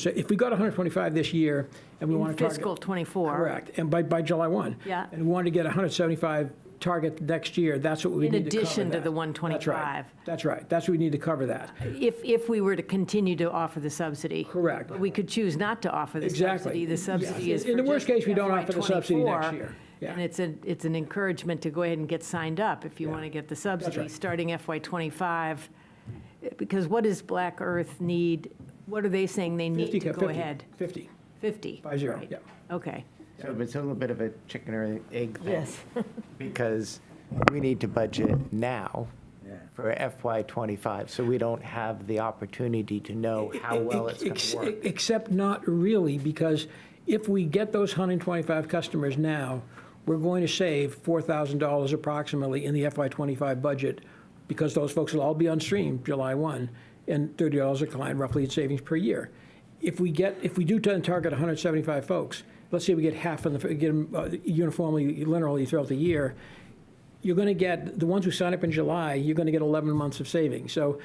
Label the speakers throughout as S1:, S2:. S1: So if we got 125 this year, and we want to target.
S2: Fiscal '24.
S1: Correct, and by, by July 1.
S2: Yeah.
S1: And we want to get 175 target next year, that's what we
S2: In
S1: need to cover
S2: addition to
S1: that.
S2: the
S1: That's right.
S2: 125.
S1: That's right, that's what we need to cover that.
S2: If, if we were to continue to offer the subsidy.
S1: Correct.
S2: But We could choose not to offer the
S1: Exactly.
S2: subsidy. The subsidy
S1: Yes.
S2: is
S1: In the
S2: for
S1: worst
S2: just
S1: case, we don't offer the subsidy next
S2: FY24,
S1: year. Yeah.
S2: And it's a, it's an encouragement to go ahead and get signed up if you
S1: Yeah.
S2: want to get the subsidy,
S1: right.
S2: starting FY '25. Because what does Black Earth need? What are they saying they
S1: 50,
S2: need to go
S1: 50,
S2: ahead?
S1: 50,
S2: 50?
S1: Five zero,
S2: right.
S1: yeah.
S2: Okay.
S3: So it's a little bit of a chicken or egg thing. Because we need to budget now for FY '25, so we don't have the opportunity to know how well it's going
S1: Ex-
S3: to work.
S1: Except not really, because if we get those 125 customers now, we're going to save $4,000 approximately in the FY25 budget, because those folks will all be on stream July 1, and $30 a client roughly in savings per year. If we get, if we do tend to target 175 folks, let's say we get half of the, get them uniformly, linearly throughout the year, you're going to get, the ones who sign up in July, you're going to get 11 months of savings. So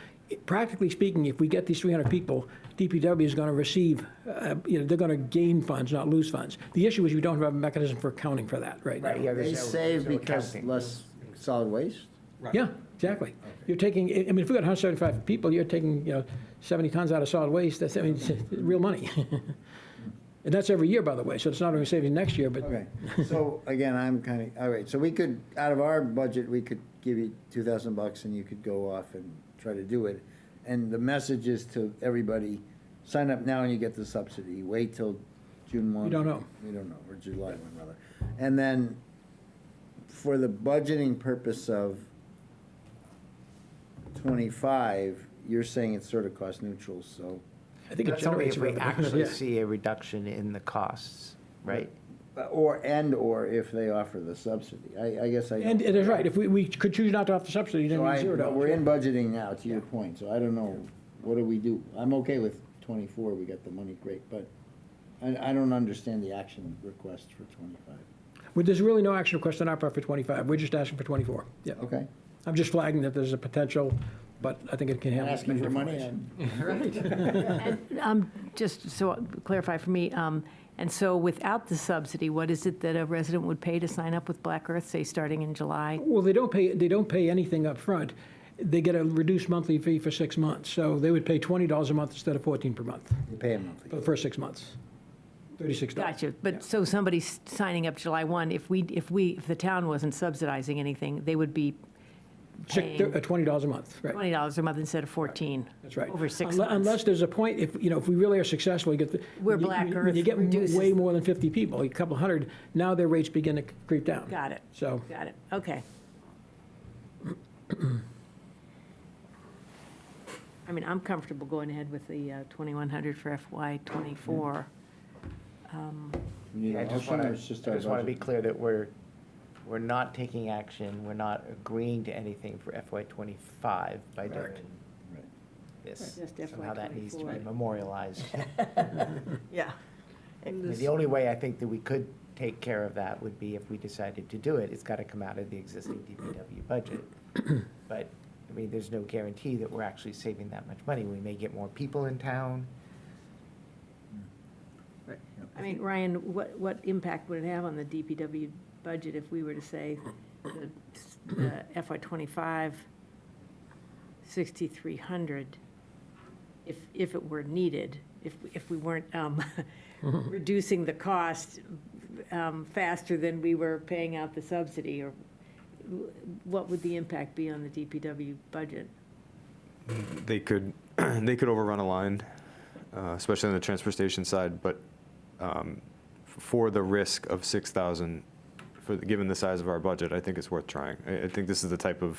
S1: practically speaking, if we get these 300 people, DPW is going to receive, uh, you know, they're going to gain funds, not lose funds. The issue is you don't have a mechanism for accounting for that right now.
S3: Yeah, there's
S4: They
S3: no-
S4: save
S3: there's no
S4: because
S3: accounting.
S4: less solid waste?
S1: Yeah, exactly. You're taking, I I mean, if we got 175 people, you're taking, you know, 70 tons out of solid waste, that's, I mean, it's real money. And that's every year, by the way, so it's not only savings next year, but
S4: Okay, so again, I'm kind of, all right, so we could, out of our budget, we could give you two thousand bucks and you could go off and try to do it. And the message is to everybody, sign up now and you get the subsidy, wait till June one.
S1: We don't know.
S4: We don't know, or July one rather. And then for the budgeting purpose of twenty-five, you're saying it's sort of cost neutral, so.
S1: I think it
S3: That's only
S1: generates
S3: if we
S1: revenue.
S3: actually
S1: Yeah.
S3: see a reduction in the costs, right?
S4: Or, and/or if they offer the subsidy. I, I guess I.
S1: And it is right, if we, we could choose not to offer subsidy, then
S4: So
S1: we
S4: I,
S1: zero
S4: but
S1: dollars.
S4: we're in budgeting now, to your point, so I don't know, what do we do? I'm okay with twenty-four, we got the money, great, but I, I don't understand the action request for twenty-five.
S1: Well, There's really no action request on our part for 25, we're just asking for 24. Yeah,
S4: Okay?
S1: I'm just flagging that there's a potential, but I think it can handle.
S4: Asking for money, and
S2: Um, Just so clarify for me, um, and so without the subsidy, what is it that a resident would pay to sign up with Black Earth, say, starting in July?
S1: Well, they don't pay, they don't pay anything up front. they get a reduced monthly fee for six months, so they would pay $20 a month instead of 14 per month,
S4: you pay them
S1: for the
S4: monthly.
S1: first six months, $36.
S2: Gotcha,
S1: Yeah.
S2: but so somebody's signing up July 1, if we, if we, if the town wasn't subsidizing anything, they would be
S1: Six-
S2: paying-
S1: uh, $20 a month, right.
S2: $20 a month instead of 14.
S1: That's right.
S2: Over six
S1: Unle-
S2: months.
S1: Unless there's a point, if, you know, if we really are successful, you get the.
S2: Where
S1: when you-
S2: Black
S1: when
S2: Earth
S1: You get
S2: reduces-
S1: m- way more than 50 people, a couple hundred, now their rates begin to creep down.
S2: Got it.
S1: So.
S2: Got it, okay. I mean, I'm comfortable going ahead with the uh, 2,100 for FY '24. Um,
S4: We need a
S3: I just
S4: motion,
S3: want
S4: or
S3: to,
S4: it's just our
S3: to be
S4: budget?
S3: clear that we're, we're not taking action, we're not agreeing to anything for FY '25 by doing
S4: Right.
S3: this.
S2: Just
S3: Somehow that needs to be
S2: FY24.
S3: memorialized.
S2: Yeah.
S3: I mean, The only way I think that we could take care of that would be if we decided to do it, it's got to come out of the existing DPW budget. But, I mean, there's no guarantee that we're actually saving that much money. We may get more people in town.
S2: I mean, Ryan, what, what impact would it have on the DPW budget if we were to say the the FY '25, 6,300, if, if it were needed, if, if we weren't um, reducing the cost um, faster than we were paying out the subsidy, or what would the impact be on the DPW budget?
S5: they could they could overrun a line, uh, especially on the transfer station side. But um, f- for the risk of six thousand, for the, given the size of our budget, I think it's worth trying. I, I think this is the type of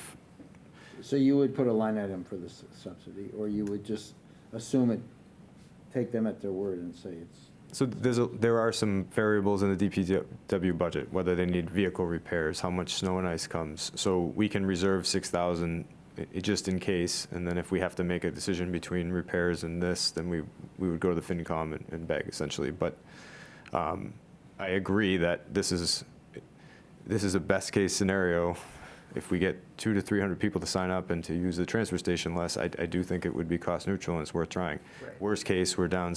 S4: So you would put a line item for the s- subsidy, or you would just assume it, take them at their word and say it's,
S5: so there's a, there are some variables in the DPW budget, whether they need vehicle repairs, how much snow and ice comes. So we can reserve six thousand just in case, and then if we have to make a decision between repairs and this, then we we would go to the FinCom and, and beg essentially. But um, I agree that this is this is a best case scenario. If we get two to three hundred people to sign up and to use the transfer station less, I, I do think it would be cost neutral and it's worth trying. Worst case, we're down